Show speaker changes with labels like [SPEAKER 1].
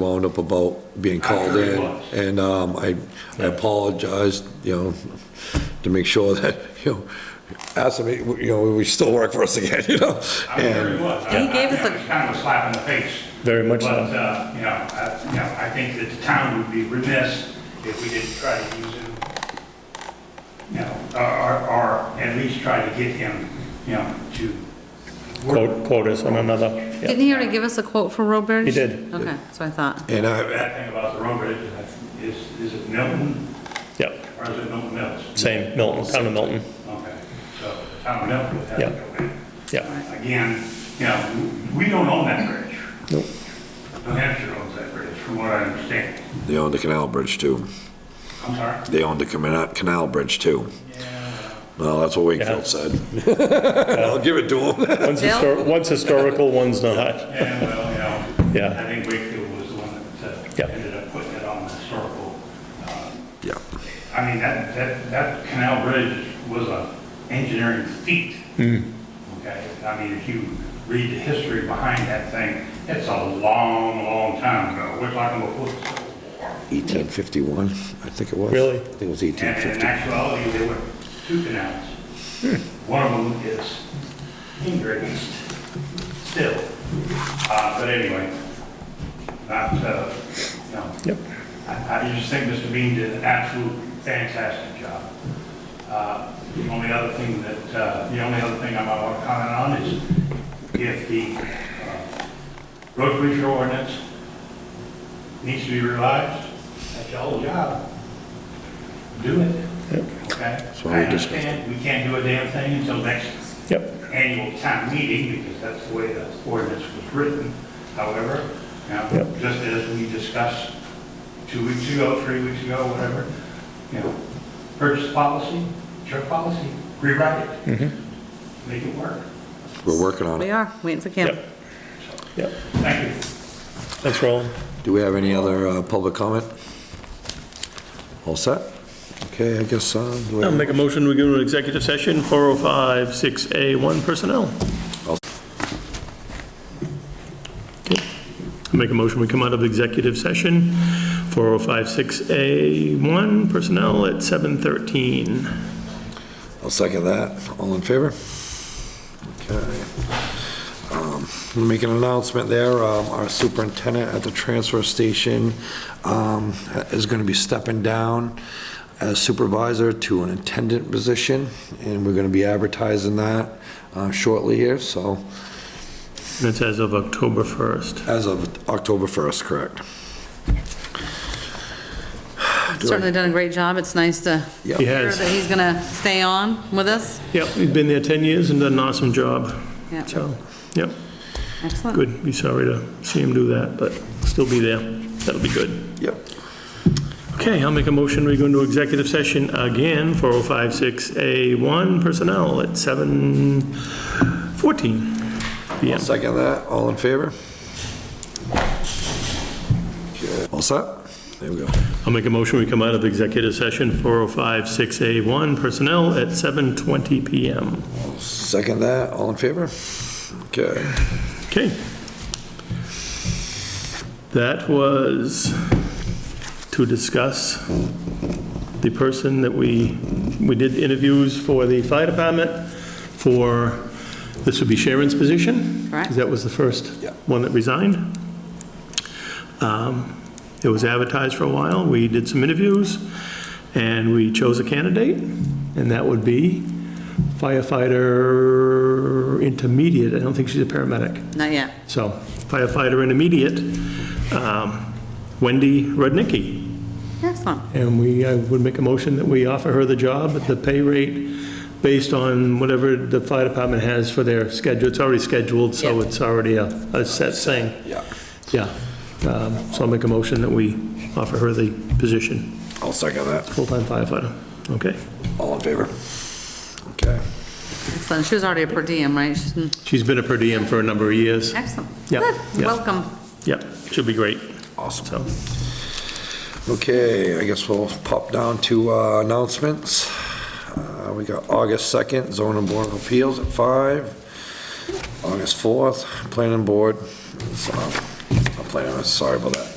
[SPEAKER 1] wound up about being called
[SPEAKER 2] sure it
[SPEAKER 1] in.
[SPEAKER 2] was.
[SPEAKER 1] And um, I I apologized, you know, to make sure that, you know, ask them, you know, we still work for us again, you know?
[SPEAKER 2] I mean,
[SPEAKER 1] And
[SPEAKER 2] very much.
[SPEAKER 3] He gave us a-
[SPEAKER 2] Kind of a slap in the face.
[SPEAKER 4] Very much so.
[SPEAKER 2] But, uh, you know, I, you know, I think that the town would be remiss if we didn't try to use him, you know, or, or- or at least try to get him, you know, to
[SPEAKER 4] quote, quote us on another. Yeah.
[SPEAKER 3] Didn't he already give us a quote for road bridge?
[SPEAKER 4] He did.
[SPEAKER 3] Okay, so I thought.
[SPEAKER 1] and
[SPEAKER 2] The
[SPEAKER 1] I,
[SPEAKER 2] bad thing about the road bridge is- is, is it Milton
[SPEAKER 4] Yeah,
[SPEAKER 2] or is it Milton Mills?
[SPEAKER 4] same, Milton, town of Milton,
[SPEAKER 2] Okay, so town of Milton would have
[SPEAKER 4] Yeah.
[SPEAKER 2] to go in.
[SPEAKER 4] yeah.
[SPEAKER 2] Again, you know, we don't own that bridge.
[SPEAKER 4] Nope.
[SPEAKER 2] New Hampshire owns that bridge, from what I understand.
[SPEAKER 1] they own the canal bridge too.
[SPEAKER 2] I'm sorry.
[SPEAKER 1] They own the canal canal bridge too. Well, that's what Wakefield said. I'll give it to them.
[SPEAKER 4] One's histor- one's historical, one's not.
[SPEAKER 2] Yeah, well, you know.
[SPEAKER 4] Yeah.
[SPEAKER 2] I think Wakefield was the one that
[SPEAKER 4] Yeah.
[SPEAKER 2] uh, ended up putting it on the historical. uh,
[SPEAKER 1] Yeah,
[SPEAKER 2] I mean, that, that, that canal bridge was a engineering feat.
[SPEAKER 4] Mm.
[SPEAKER 2] Okay, I mean, if you read the history behind that thing, it's a long, long time ago. We're talking about before the Civil War.
[SPEAKER 1] 1851, I think it was.
[SPEAKER 4] Really?
[SPEAKER 1] I think it was
[SPEAKER 2] And in
[SPEAKER 1] 1850.
[SPEAKER 2] actuality, there were two canals. One of them is engraved still. Uh, But anyway, not, uh, no.
[SPEAKER 4] Yep.
[SPEAKER 2] I I just think Mr. Bean did an absolute fantastic job. Uh, The only other thing that, uh, the only other thing I might want to comment on is if the uh, road closure ordinance needs to be revised, that's y'all's job. Do it, okay?
[SPEAKER 1] why we
[SPEAKER 2] I
[SPEAKER 1] discussed it.
[SPEAKER 2] understand We can't do a damn thing until next
[SPEAKER 4] Yep,
[SPEAKER 2] annual town meeting, because that's the way the ordinance was written. However, you know,
[SPEAKER 4] Yep.
[SPEAKER 2] just as we discussed two weeks ago, three weeks ago, whatever, you know, purchase policy, truck policy, rewrite it.
[SPEAKER 1] Mm-hmm.
[SPEAKER 2] Make it work.
[SPEAKER 1] We're working on
[SPEAKER 3] We
[SPEAKER 1] it.
[SPEAKER 3] are, waiting for Kim.
[SPEAKER 4] yep, yep.
[SPEAKER 2] Thank you.
[SPEAKER 4] Thanks, Roland.
[SPEAKER 1] Do we have any other uh, public comment? All set? Okay, I guess, uh, do we-
[SPEAKER 4] I'll make a motion, we go to an executive session, 405-6A1 personnel.
[SPEAKER 1] I'll-
[SPEAKER 4] Okay. I'll Make a motion, we come out of executive session, 405-6A1 personnel at 7:13.
[SPEAKER 1] I'll second that. All in favor? Okay. Um, Make an announcement there. Um, Our superintendent at the transfer station um, is going to be stepping down as supervisor to an attendant position, and we're going to be advertising that uh, shortly here, so
[SPEAKER 4] And it's as of October 1st.
[SPEAKER 1] as of October 1st, correct?
[SPEAKER 3] Certainly done a great job. It's nice to
[SPEAKER 1] Yeah.
[SPEAKER 4] He
[SPEAKER 3] hear
[SPEAKER 4] has.
[SPEAKER 3] that he's gonna stay on with us.
[SPEAKER 4] Yep, he's been there 10 years and done an awesome job.
[SPEAKER 3] Yeah.
[SPEAKER 4] So, yep,
[SPEAKER 3] Excellent.
[SPEAKER 4] good. Be sorry to see him do that, but still be there. That'll be good.
[SPEAKER 1] Yep.
[SPEAKER 4] Okay, I'll make a motion, we go into executive session again, 4056A1 personnel at 7:14
[SPEAKER 1] I'll
[SPEAKER 4] PM.
[SPEAKER 1] second that. All in favor? Okay. All set? There we go.
[SPEAKER 4] I'll make a motion, we come out of executive session, 4056A1 personnel at 7:20 PM.
[SPEAKER 1] Second that, all in favor? Okay.
[SPEAKER 4] Okay. That was to discuss the person that we, we did interviews for the fire department for, this would be Sharon's position.
[SPEAKER 3] Correct.
[SPEAKER 4] Because that was the first
[SPEAKER 1] Yeah.
[SPEAKER 4] one that resigned. Um, It was advertised for a while, we did some interviews, and we chose a candidate, and that would be firefighter intermediate, I don't think she's a paramedic.
[SPEAKER 3] Not yet.
[SPEAKER 4] So firefighter intermediate, um, Wendy Rudnicki.
[SPEAKER 3] Excellent.
[SPEAKER 4] And we, I would make a motion that we offer her the job at the pay rate based on whatever the fire department has for their schedule. It's already scheduled, so
[SPEAKER 3] Yeah.
[SPEAKER 4] it's already a, a set thing.
[SPEAKER 1] Yeah.
[SPEAKER 4] Yeah. Um, So I'll make a motion that we offer her the position,
[SPEAKER 1] I'll second that,
[SPEAKER 4] full-time firefighter. Okay?
[SPEAKER 1] all in favor? Okay.
[SPEAKER 3] Excellent. She was already a per diem, right? She's mm,
[SPEAKER 4] She's been a per diem for a number of years.
[SPEAKER 3] Excellent.
[SPEAKER 4] Yeah,
[SPEAKER 3] Good.
[SPEAKER 4] yeah.
[SPEAKER 3] Welcome.
[SPEAKER 4] Yep, she'll be great.
[SPEAKER 1] Awesome.
[SPEAKER 4] So,
[SPEAKER 1] Okay, I guess we'll pop down to uh, announcements. Uh, We got August 2nd, zoning board of appeals at 5. August 4th, planning board, so, I'm planning, sorry about that.